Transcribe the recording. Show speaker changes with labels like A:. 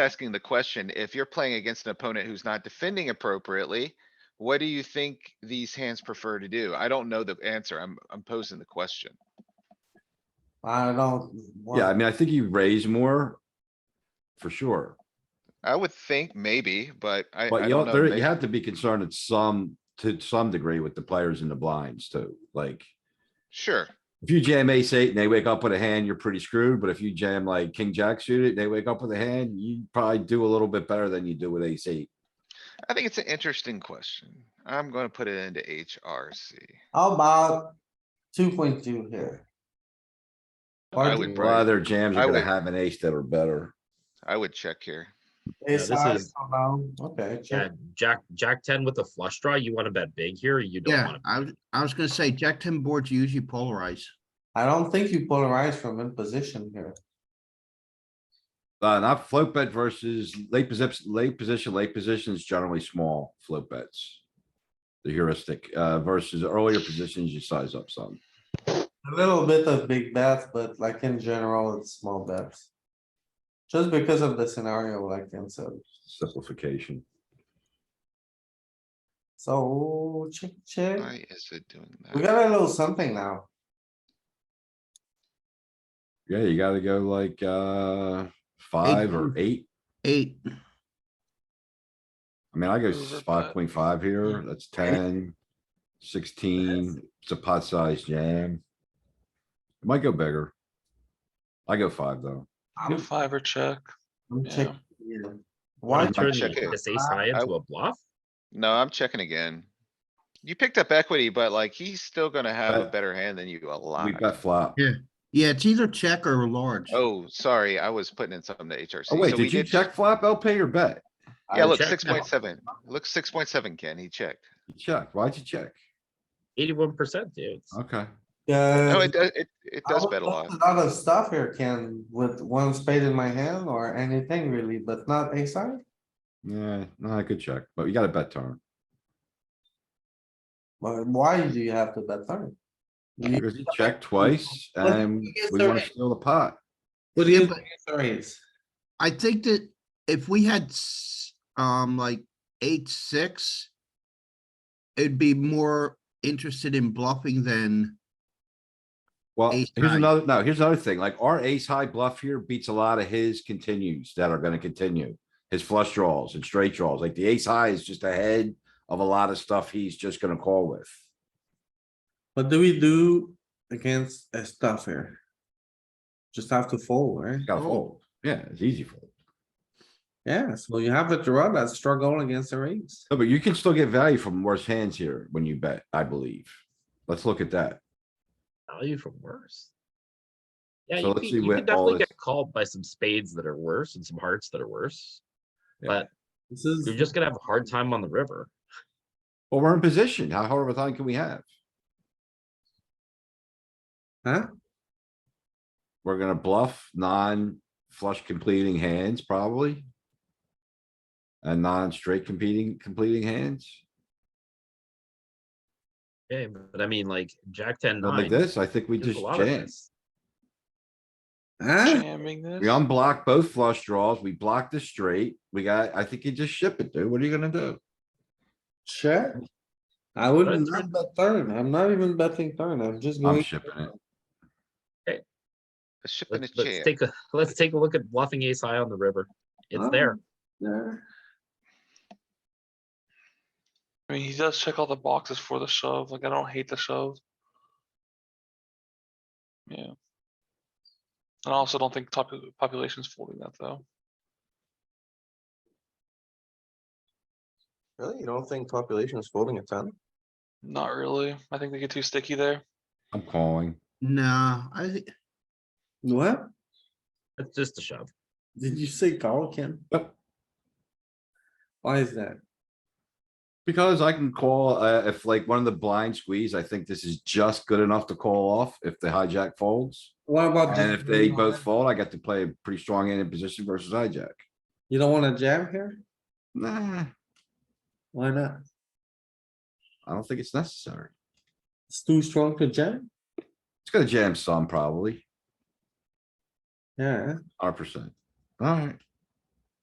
A: asking the question, if you're playing against an opponent who's not defending appropriately, what do you think these hands prefer to do? I don't know the answer. I'm, I'm posing the question.
B: I don't.
C: Yeah, I
B: want-
C: mean, I think you raise more. For sure,
A: I would think maybe, but I,
C: but
A: I
C: you
A: don't
C: don't,
A: know.
C: there,
A: May-
C: you have to be concerned at some, to some degree with the players in the blinds too, like.
A: Sure,
C: If you jam ace eight and they wake up with a hand, you're pretty screwed, but if you jam like king jack suited, they wake up with a hand, you probably do a little bit better than you do with ace eight.
A: I think it's an interesting question. I'm gonna put it into HRC.
B: How about two point two here?
A: I would
C: A
A: probably-
C: lot of their jams
A: I
C: are gonna
A: would-
C: have an ace that are better.
A: I would check here.
D: Yeah, this
B: Ace-high,
D: is-
B: so down. Okay,
D: Yeah,
B: check.
D: Jack, Jack ten with a flush draw, you wanna bet big here, or you don't
E: Yeah,
D: wanna,
E: I was, I was gonna say, Jack ten boards usually polarize.
B: I don't think you polarize from in position here.
C: Uh, not float bet versus late position, late position, late position is generally small float bets. The heuristic, uh, versus earlier positions, you size up some.
B: A little bit of big bets, but like in general, it's small bets. Just because of the scenario, like Ken said.
C: Simplification.
B: So check, check.
A: Why is it doing
B: We
A: that?
B: got a little something now.
C: Yeah, you gotta go like, uh, five or eight.
E: Eight,
C: I mean, I go
F: Over
C: five
F: pot.
C: point five here, that's ten, sixteen, it's a pot sized jam. It Might go bigger. I go five though.
F: Go
B: I'm,
F: five or check.
B: I'm
F: Yeah.
B: checking. here. Why?
D: wanna turn
A: check it.
D: this ace high
A: I-
D: into a bluff?
A: No, I'm checking again. You picked up equity, but like he's still gonna have a
C: Bet.
A: better hand than you a lot.
C: We bet flop.
E: Yeah. yeah, it's either check or large.
A: Oh, sorry, I was putting in something to HRC.
C: Oh
A: So
C: wait,
A: we
C: did you check flop LP or bet?
A: Yeah,
B: I
A: look,
D: checked
A: six
D: now.
A: point seven, look, six point seven, Ken, he checked.
C: You checked. Why'd you check?
D: Eighty-one percent, dude. it's-
C: Okay.
B: Uh,
A: No, Oh, it does, it, it
B: I
A: does
B: would
A: bet a
B: love
A: lot.
B: Lot of stuff here, Ken, with one spade in my hand or anything really, but not ace high.
C: Yeah, no, I could check, but you got a bet turn.
B: But why do you have to bet third? You-
C: Because you checked twice
B: Let's
C: and
B: get
C: we wanna
B: started.
C: steal the pot.
E: Well,
B: Yeah,
E: yeah,
B: but
E: but
B: threes.
E: I think that if we had, s- um, like eight, six. It'd be more interested in bluffing than,
C: Well,
E: Ace
C: here's
E: high.
C: another, no, here's another thing, like our ace high bluff here beats a lot of his continues that are gonna continue. His flush draws and straight draws, like the ace high is just ahead of a lot of stuff he's just gonna call with.
B: What do we do against a stuff here? Just have to fold, right?
C: Gotta fold, yeah, it's easy fold.
B: Yeah, so you have a draw that struggle against the raise.
C: No, but you can still get value from worse hands here when you bet, I believe. Let's look at that.
D: value from worse. Yeah,
C: So
D: you
C: let's
D: can,
C: see
D: you
C: what
D: can
C: all
D: definitely
C: this-
D: get called by some spades that are worse and some hearts that are worse.
C: Yeah.
D: But
B: This is,
D: you're just gonna have a hard time on the river.
C: Well, we're in position. How hard of a time can we have?
B: huh?
C: We're gonna bluff non-flush completing hands probably. And non-straight competing, completing hands.
D: Yeah, but I mean, like, Jack ten
C: Not like
D: nine.
C: this, I think we
D: there's a
C: just
D: lot of
C: jam.
D: this.
B: Huh?
F: Jamming
C: We
F: this.
C: unblock both flush draws, we block the straight, we got, I think you just ship it, dude, what are you gonna do?
B: Check. I wouldn't not bet third. I'm not even betting third. I'm just
C: I'm
B: going.
C: shipping it,
A: A ship and a
D: Let's, let's
A: jam.
D: take a, let's take a look at bluffing ace high on the river. It's
B: Oh.
D: there.
B: there.
F: I mean, he does check all the boxes for the shove. Like, I don't hate the shove. Yeah. And I also don't think popu- population's folding that though.
G: Really? You don't think population is folding a ton?
F: Not really. I think they get too sticky there.
C: I'm calling.
E: nah, I think,
B: What?
D: It's just a shove.
B: Did you say call, Ken?
C: Yep.
B: Why is that?
C: Because I can call, uh, if like one of the blind squeeze, I think this is just good enough to call off if the hijack folds.
B: What about?
C: And
B: just
C: if they
B: being
C: both
B: honest?
C: fold, I got to play a pretty strong hand in position versus hijack.
B: You don't wanna jam here?
C: Nah,
B: Why not?
C: I don't think it's necessary.
B: It's too strong to jam?
C: It's gonna jam some probably,
B: Yeah,
C: hundred percent. Alright,